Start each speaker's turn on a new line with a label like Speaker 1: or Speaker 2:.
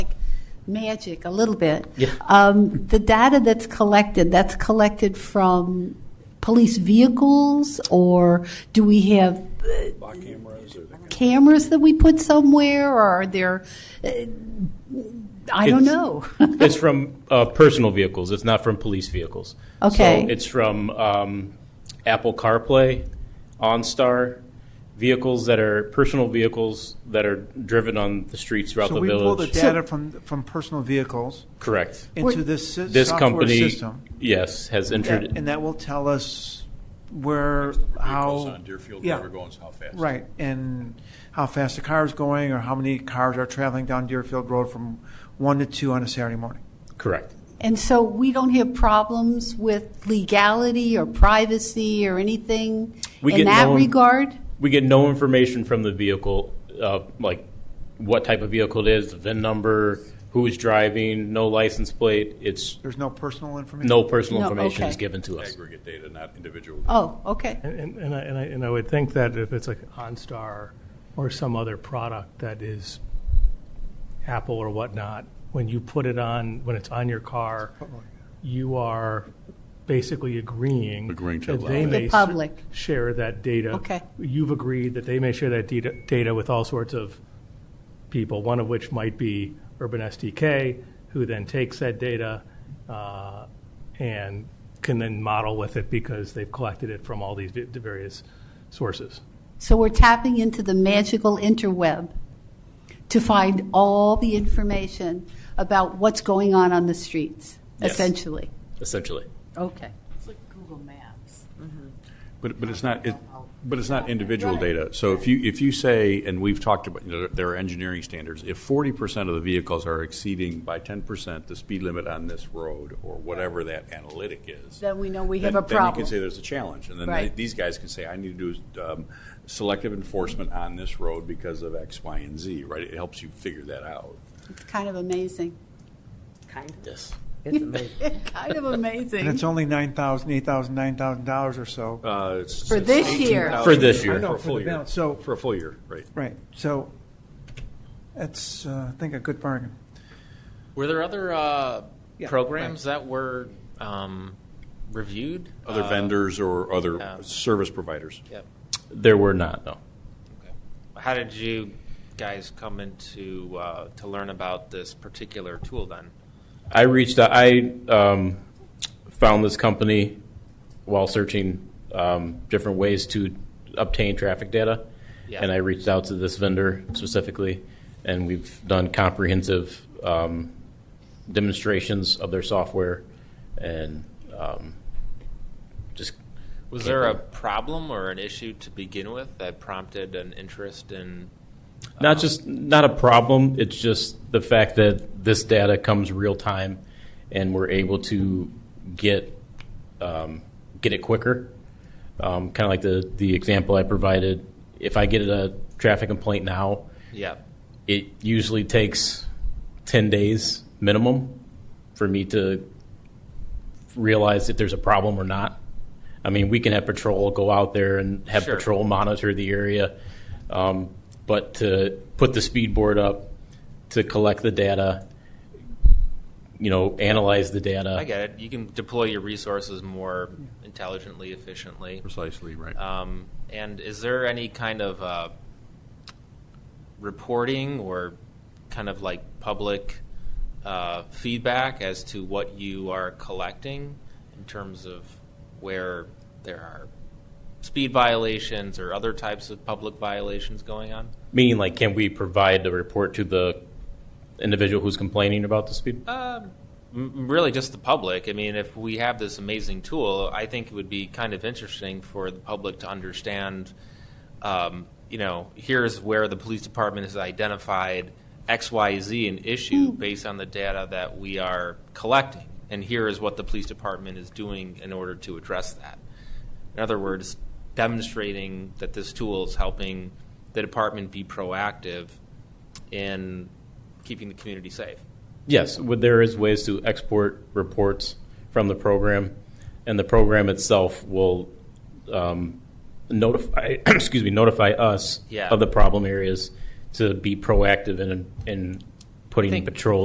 Speaker 1: magic a little bit.
Speaker 2: Yeah.
Speaker 1: Um, the data that's collected, that's collected from police vehicles, or do we have uh, cameras that we put somewhere, or are there? Uh, I don't
Speaker 2: It's-
Speaker 1: know.
Speaker 2: It's from uh, personal vehicles. It's not from police vehicles.
Speaker 1: Okay.
Speaker 2: So it's from um, Apple CarPlay, OnStar, vehicles that are personal vehicles that are driven on the streets throughout
Speaker 3: So
Speaker 2: the
Speaker 3: we
Speaker 2: village.
Speaker 3: pull the data from, from personal vehicles
Speaker 2: Correct.
Speaker 3: into this si-
Speaker 2: This
Speaker 3: software
Speaker 2: company,
Speaker 3: system.
Speaker 2: yes, has entered.
Speaker 3: That- And that will tell us where,
Speaker 4: Vehicles
Speaker 3: how,
Speaker 4: on Deerfield
Speaker 3: yeah.
Speaker 4: River going how fast.
Speaker 3: right, and how fast the car is going or how many cars are traveling down Deerfield Road from one to two on a Saturday morning.
Speaker 2: correct.
Speaker 1: and so we don't have problems with legality or privacy or anything
Speaker 2: We
Speaker 1: in
Speaker 2: get
Speaker 1: that
Speaker 2: no-
Speaker 1: regard.
Speaker 2: We get no information from the vehicle, uh, like what type of vehicle it is, the VIN number, who is driving, no license plate. It's
Speaker 3: There's no personal information?
Speaker 2: no personal
Speaker 1: No,
Speaker 2: information is
Speaker 1: okay.
Speaker 2: given to us.
Speaker 4: Aggregate data, not individual.
Speaker 1: Oh, okay.
Speaker 5: And- And, and I, and I, and I would think that if it's like OnStar or some other product that is Apple or whatnot, when you put it on, when it's on your car, you are basically agreeing.
Speaker 4: Agreeing to
Speaker 5: that
Speaker 4: allow
Speaker 5: they
Speaker 4: it.
Speaker 5: may
Speaker 1: The
Speaker 5: s-
Speaker 1: public.
Speaker 5: Share that data.
Speaker 1: Okay.
Speaker 5: You've agreed that they may share that data, data with all sorts of people, one of which might be Urban SDK, who then takes that data uh, and can then model with it because they've collected it from all these vi- the various sources.
Speaker 1: So we're tapping into the magical interweb to find all the information about what's going on on the streets,
Speaker 2: Yes.
Speaker 1: essentially.
Speaker 2: Essentially.
Speaker 1: Okay.
Speaker 6: It's like Google Maps.
Speaker 4: But, but it's not, it- but it's not individual data. So if you, if you say, and we've talked about, you know, there are engineering standards, if forty percent of the vehicles are exceeding by ten percent the speed limit on this road, or whatever that analytic is.
Speaker 1: Then we know we have
Speaker 4: then-
Speaker 1: a
Speaker 4: Then you
Speaker 1: problem.
Speaker 4: can say there's a challenge, and then they-
Speaker 1: Right.
Speaker 4: these guys can say, I need to do um, selective enforcement on this road because of X, Y, and Z, right? It helps you figure that out.
Speaker 1: It's kind of amazing.
Speaker 6: Kind of.
Speaker 2: Yes.
Speaker 7: It's amazing.
Speaker 1: kind of
Speaker 3: And
Speaker 1: amazing.
Speaker 3: it's only nine thousand, eight thousand, nine thousand dollars or so.
Speaker 4: Uh, it's-
Speaker 1: For
Speaker 4: it's
Speaker 1: this year.
Speaker 4: 18,000
Speaker 2: For this year. I
Speaker 3: know,
Speaker 4: For a
Speaker 3: for
Speaker 4: full
Speaker 3: the
Speaker 4: year.
Speaker 3: balance. So-
Speaker 4: For a full year, right.
Speaker 3: Right, so that's, uh, I think, a good bargain.
Speaker 8: Were there other uh,
Speaker 3: Yeah,
Speaker 8: programs that were um, reviewed?
Speaker 4: Other
Speaker 8: Uh,
Speaker 4: vendors or other
Speaker 8: yeah.
Speaker 4: service providers.
Speaker 8: Yep.
Speaker 2: There were not, no.
Speaker 8: How did you guys come into uh, to learn about this particular tool? Then
Speaker 2: I reached out. I um, found this company while searching um, different ways to obtain traffic data,
Speaker 8: Yeah.
Speaker 2: and I reached out to this vendor specifically, and we've done comprehensive um, demonstrations of their software, and um, just
Speaker 8: was there a problem or an issue to begin with that prompted an interest in?
Speaker 2: not just not a problem. It's just the fact that this data comes real time, and we're able to get um, get it quicker. Um, kind of like the the example I provided. If I get a traffic complaint now,
Speaker 8: Yeah.
Speaker 2: it usually takes ten days minimum for me to realize if there's a problem or not. I mean, we can have patrol go out there and have
Speaker 8: Sure.
Speaker 2: patrol monitor the area, um, but to put the speed board up, to collect the data, you know, analyze the data.
Speaker 8: I get it. You can deploy your resources more intelligently, efficiently.
Speaker 4: Precisely, right.
Speaker 8: Um, and is there any kind of uh, reporting or kind of like public uh, feedback as to what you are collecting in terms of where there are speed violations or other types of public violations going on?
Speaker 2: Meaning, like, can we provide the report to the individual who's complaining about the speed?
Speaker 8: M- Really, just the public. I mean, if we have this amazing tool, I think it would be kind of interesting for the public to understand. Um, you know, here's where the police department has identified X, Y, Z an issue based on the data that we are collecting, and here is what the police department is doing in order to address that. In other words, demonstrating that this tool is helping the department be proactive in keeping the community safe.
Speaker 2: Yes, would- there is ways to export reports from the program, and the program itself will um, notify, excuse me, notify us
Speaker 8: Yeah.
Speaker 2: of the problem areas to be proactive in, in putting
Speaker 8: think-
Speaker 2: patrol